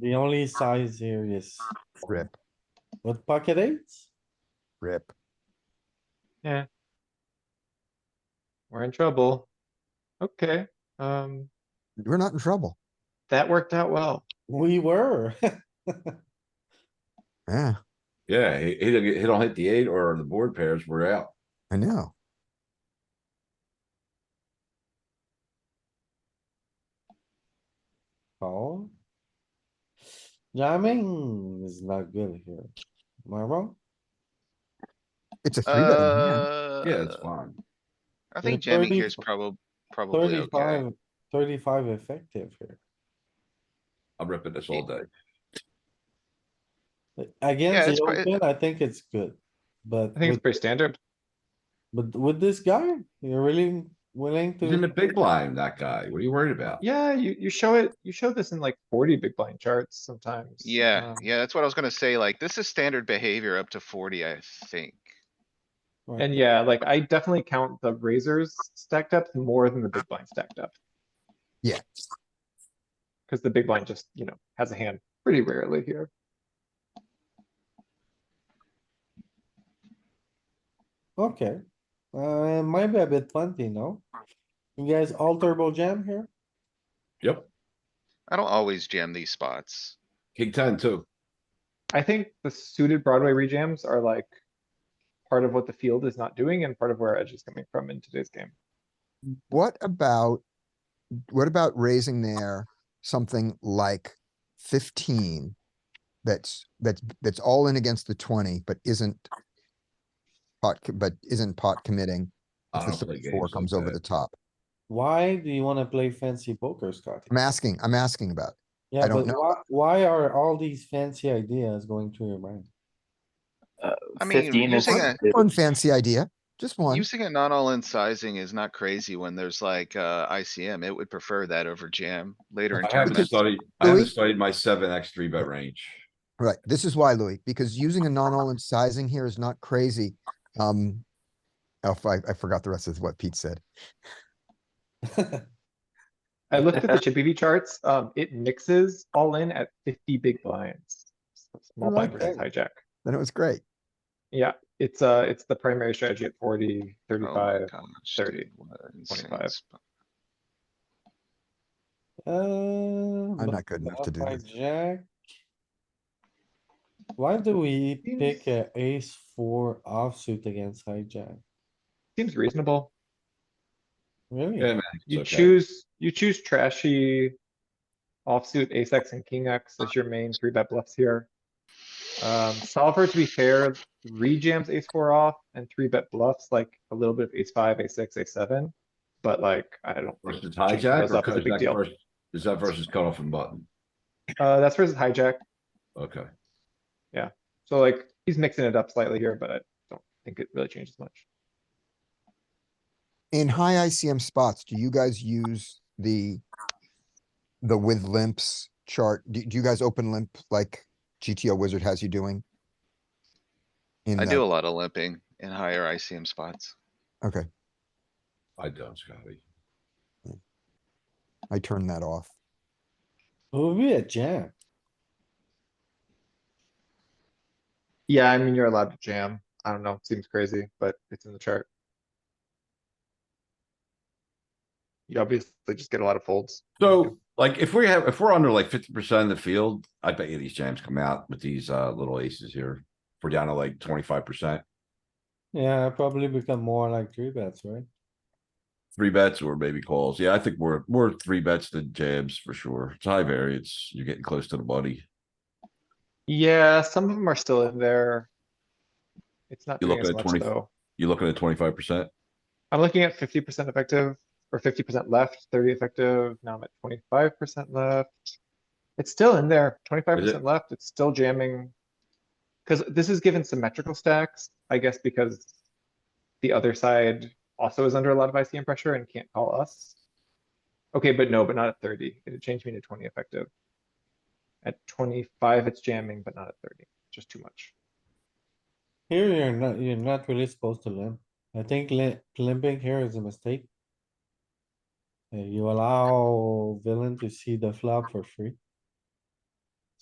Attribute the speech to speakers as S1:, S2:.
S1: The only size here is
S2: Rip,
S1: with pocket eights?
S2: rip.
S3: We're in trouble. Okay, um,
S2: We're not in trouble.
S3: that worked out well.
S1: We were.
S2: Yeah,
S4: Yeah, he, he, don't get- he don't hit the eight or the board pairs, we're out.
S2: I know.
S1: Call. Jamming is not good here. Am I wrong?
S2: It's a three betting hand.
S5: Uh,
S4: Yeah, it's fine.
S5: I think
S1: Yeah,
S5: jamming here is
S1: 30
S5: probably, probably okay.
S1: 35 35 effective here.
S4: I'm ripping this all day.
S5: Yeah,
S1: Against
S5: it's
S1: the
S5: quite-
S1: open, I think it's good, but,
S3: I think it's
S1: with-
S3: pretty standard.
S1: but with this guy, you're really willing
S4: He's in the
S1: to,
S4: big blind, that guy. What are you worried about?
S3: Yeah, you, you show it, you show this in like forty big blind charts sometimes.
S5: Yeah,
S3: um,
S5: yeah, that's what I was gonna say, like, this is standard behavior up to forty, I think.
S1: Right.
S3: And yeah, like I definitely count the razors stacked up more than the big blind stacked up,
S2: Yeah,
S3: because the big blind just, you know, has a hand pretty rarely here.
S1: okay. Uh, might be a bit plenty, no? You guys all turbo jam here?
S4: Yep,
S5: I don't always jam these spots.
S4: king ten too.
S3: I think the suited Broadway rejams are like part of what the field is not doing and part of where edge is coming from in today's game.
S2: what about, what about raising there something like fifteen? That's, that's, that's all in against the twenty, but isn't pot, co- but isn't pot committing
S4: I
S2: if the
S4: don't play games
S2: thirty-four
S4: like
S2: comes over
S4: that.
S2: the top?
S1: Why do you wanna play fancy poker, Scotty?
S2: I'm asking, I'm asking about, it.
S1: Yeah, but
S2: don't know.
S1: why, why are all these fancy ideas going through your mind?
S5: I mean,
S6: 15 is
S5: using a-
S2: one fancy idea, just one.
S5: Using a non-all-in sizing is not crazy when there's like, uh, ICM, it would prefer that over jam later in
S4: I haven't
S5: tournaments.
S4: studied, I haven't
S2: Louis?
S4: studied my seven X three bet range.
S2: Right, this is why, Louis, because using a non-all-in sizing here is not crazy. Um, oh, I, I forgot the rest of what Pete said.
S3: I looked at the Chippy V charts, um, it mixes all in at fifty big blinds. Small blind
S2: like
S3: versus
S2: that.
S3: hijack.
S2: Then it was great.
S3: Yeah, it's, uh, it's the primary strategy at 40,
S5: Oh
S3: 35.
S5: my gosh,
S3: 30,
S5: dude, what a
S3: 25.
S5: insane spot.
S1: I'm
S2: I'm not good enough to do this.
S1: Uh, Jack. Why do we pick a ace four offsuit against hijack?
S3: Seems reasonable.
S4: Yeah,
S1: Really?
S4: man.
S3: You
S4: okay.
S3: choose, you choose trashy offsuit ace X and king X as your main three bet bluffs here. Um, solver, to be fair, rejams ace four off and three bet bluffs, like a little bit of ace five, ace six, ace seven. But like, I don't. think
S4: Versus
S3: changing
S4: hijack
S3: those
S4: or
S3: up is a
S4: is
S3: big
S4: that
S3: deal.
S4: versus, is that versus cutoff and button?
S3: Uh, that's versus hijack.
S4: Okay,
S3: So like, he's mixing it up slightly here, but I don't think it really changes much.
S2: In high ICM spots, do you guys use the, the with limps chart? Do, do you guys open limp like GTO Wizard has you doing? In
S5: I do a
S2: the,
S5: lot of limping in higher ICM spots.
S2: okay,
S4: I don't, Scotty.
S2: I turned that off.
S1: It would be a jam.
S3: Yeah, I mean, you're allowed to jam. I don't know, seems crazy, but it's in the chart. You obviously just get a lot of folds.
S4: So, like, if we have, if we're under like fifty percent of the field, I bet you these jams come out with these, uh, little aces here. If We're down to like twenty-five percent,
S1: Yeah, I probably become more like three bets, right?
S4: three bets or maybe calls. Yeah, I think we're, we're three bets to jams for sure. It's high variance. You're getting close to the money.
S3: Yeah, some of them are still in there. It's not
S4: You
S3: doing
S4: look
S3: as
S4: at
S3: much
S4: 20
S3: though.
S4: You're looking at twenty-five percent.
S3: I'm looking at fifty percent effective or fifty percent left, thirty effective. Now I'm at twenty-five percent left. It's still in there, twenty-five percent left. It's still jamming. Cause this is given symmetrical stacks, I guess because the other side also is under a lot of ICM pressure and can't call us. Okay, but no, but not at thirty. It changed me to twenty effective. At twenty-five, it's jamming, but not at thirty. Just too much.
S1: Here, you're not, you're not really supposed to limp. I think lim- limping here is a mistake. Uh, You allow villain to see the flop for free.